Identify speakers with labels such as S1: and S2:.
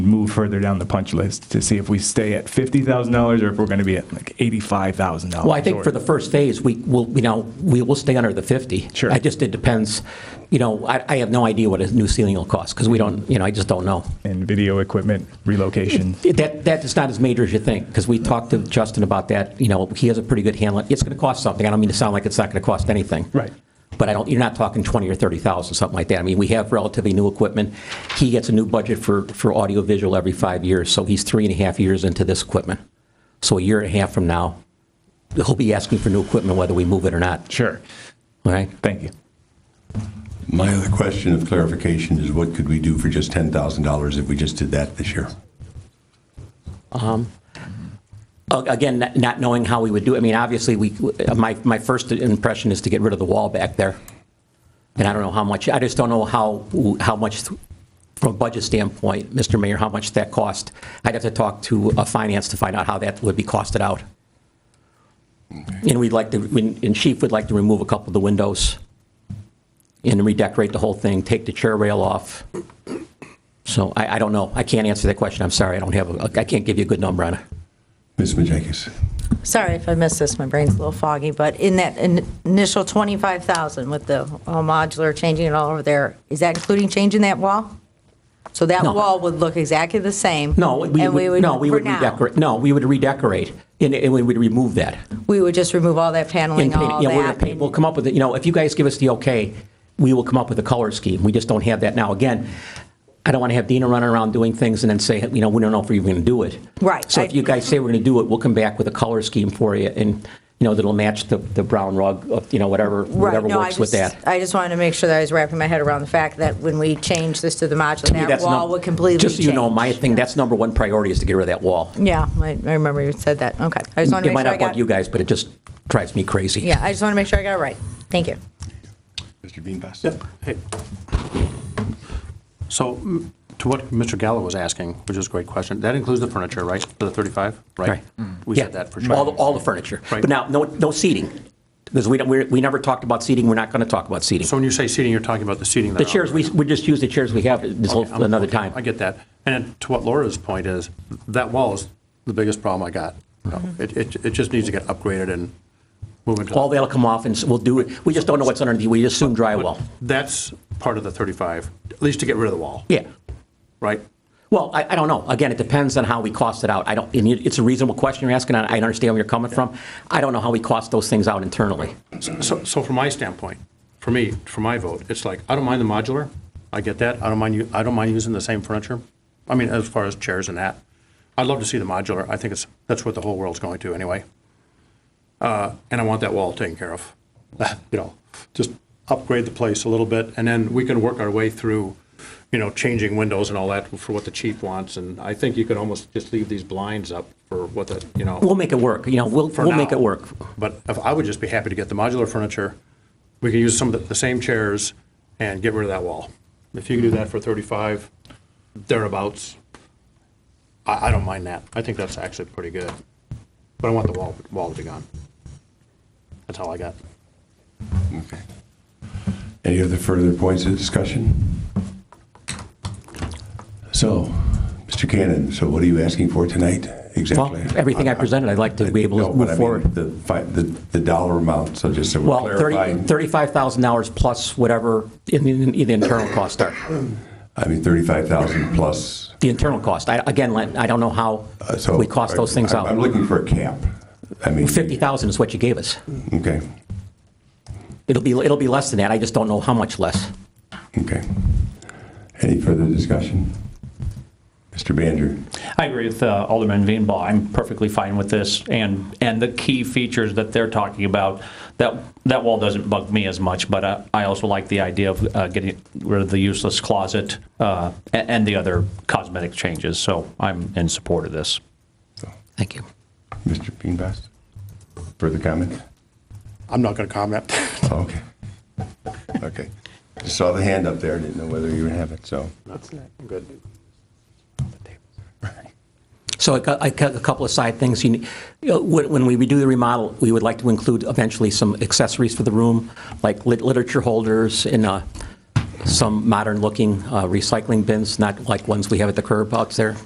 S1: further down the punch list to see if we stay at $50,000 or if we're going to be at like $85,000.
S2: Well, I think for
S1: or-
S2: the first phase, we will, you know, we will stay under the 50.
S1: Sure.
S2: I just, it depends, you know, I, I have no idea what a new ceiling will cost, because we don't, you know, I just don't know.
S1: And video equipment relocation.
S2: That, that is not as major as you think, because we talked to Justin about that, you know, he has a pretty good handle, it's going to cost something, I don't mean to sound like it's not going to cost anything.
S1: Right.
S2: But I don't, you're not talking 20 or 30,000, something like that. I mean, we have relatively new equipment. He gets a new budget for, for audiovisual every five years, so he's three and a half years into this equipment. So a year and a half from now, he'll be asking for new equipment whether we move it or not,
S1: Sure.
S2: all right?
S1: Thank you.
S3: My other question of clarification is what could we do for just $10,000 if we just did that this year?
S2: A- Again, not- not knowing how we would do, it. I mean, obviously, we, my, my first impression is to get rid of the wall back there. And I don't know how much, I just don't know how, how much, from a budget standpoint, Mr. Mayor, how much that cost. I'd have to talk to uh, finance to find out how that would be costed out. And we'd like to, and Chief would like to remove a couple of the windows and redecorate the whole thing, take the chair rail off. So I, I don't know. I can't answer that question. I'm sorry. I don't have, a- I can't give you a good number on it.
S3: Ms. Majakis?
S4: Sorry if I missed this, my brain's a little foggy, but in that in- initial 25,000 with the all modular changing it all over there, is that including changing that wall? So that
S2: No.
S4: wall would look exactly the same?
S2: No, we
S4: and
S2: would, no, we
S4: for
S2: would
S4: now,
S2: redecorate, no, we would redecorate, and, and we would remove that.
S4: We would just remove all that
S2: And
S4: paneling,
S2: paint it.
S4: all
S2: Yeah, we're gonna
S4: that?
S2: paint- We'll
S4: and-
S2: come up with, it. you know, if you guys give us the okay, we will come up with a color scheme, we just don't have that now. Again, I don't want to have Dina running around doing things and then say, you know, we don't know if we're even going to do it.
S4: Right,
S2: So
S4: I-
S2: if you guys say we're going to do it, we'll come back with a color scheme for you, and, you know, that'll match the, the brown rug, of, you know, whatever,
S4: Right,
S2: whatever
S4: no, I
S2: works with that.
S4: just, I just wanted to make sure that I was wrapping my head around the fact that when we change this to the
S2: To me,
S4: modular, that
S2: that's num-
S4: wall would completely change.
S2: Just so you know, my thing, that's number one priority is to get rid of that wall.
S4: Yeah, I I remember you said that, okay. I just wanted
S2: It
S4: to make
S2: might
S4: sure I
S2: not
S4: got,
S2: bug you guys, but it just drives me crazy.
S4: yeah, I just want to make sure I got it right. Thank you.
S3: Mr. Beanbass?
S5: Hey. So m- to what Mr. Gallo was asking, which is a great question, that includes the furniture, right? For the 35, right? Mm.
S2: Right.
S5: We
S2: Yeah,
S5: said that for
S2: All, the-
S5: sure.
S2: all the furniture.
S5: Right.
S2: But now, no, no seating, because we don't, we're- we never talked about seating, we're not going to talk about seating.
S5: So when you say seating, you're talking about the seating that.
S2: The chairs, we, we just use the chairs we have this whole,
S5: I'm-
S2: another time.
S5: I get that. And then to what Laura's point is, that wall is the biggest problem I got.
S2: Mm-hmm.
S5: You know, It, it, it just needs to get upgraded and moving to.
S2: All that'll come off and s- we'll do it, we just don't know what's underneath, we assume
S5: But
S2: drywall.
S5: That's part of the 35, at least to get rid of the wall.
S2: Yeah.
S5: Right?
S2: Well, I, I don't know. Again, it depends on how we cost it out. I don't, and it- it's a reasonable question you're asking, and I understand where you're coming from. I don't know how we cost those things out internally.
S5: So, so from my standpoint, for me, for my vote, it's like, I don't mind the modular. I get that. I don't mind you, I don't mind using the same furniture. I mean, as far as chairs and that. I'd love to see the modular. I think it's, that's what the whole world's going to anyway. Uh, and I want that wall taken care of. You know, just upgrade the place a little bit and then we can work our way through, you know, changing windows and all that for what the chief wants. And I think you could almost just leave these blinds up for what the, you know
S2: We'll make it work, you know, we'll,
S5: for
S2: we'll make
S5: now.
S2: it work.
S5: But if, I would just be happy to get the modular furniture. We can use some of the, the same chairs and get rid of that wall. If you can do that for 35, thereabouts, I, I don't mind that. I think that's actually pretty good. But I want the wall, wall to be gone. That's all I got.
S3: Any other further points of discussion? So, Mr. Cannon, so what are you asking for tonight
S2: Well,
S3: exactly?
S2: everything I presented, I'd like to be able
S3: No,
S2: to
S3: but I
S2: move
S3: mean
S2: forward.
S3: The, fi- the the dollar amount, so just so we're
S2: Well, 30
S3: clarifying.
S2: $35,000 plus whatever in- in- in the internal costs are,
S3: I mean, 35,000 plus.
S2: the internal cost. I- Again, Len, I don't know how
S3: uh, so-
S2: we cost those things
S3: I'm- I'm
S2: out.
S3: looking for a cap. I mean.
S2: 50,000 is what you gave us.
S3: Okay,
S2: It'll be, it'll be less than that, I just don't know how much less.
S3: okay. Any further discussion? Mr. Bander?
S6: I agree with uh, Alderman Veenbaugh. I'm perfectly fine with this, and and the key features that they're talking about that that wall doesn't bug me as much. But uh, I also like the idea of uh, getting rid of the useless closet uh, and, and the other cosmetic changes. So I'm in support of this.
S2: Thank you.
S3: Mr. Beanbass? Further comment?
S5: I'm not going to comment.
S3: Oh, Okay. Okay. Just saw the hand up there, didn't know whether you would have it, so.
S5: I'm good.
S2: So I got- I got a couple of side things. You need- you know, When when we redo the remodel, we would like to include eventually some accessories for the room, like lit- literature holders and uh, some modern-looking uh, recycling bins, not like ones we have at the curb out there.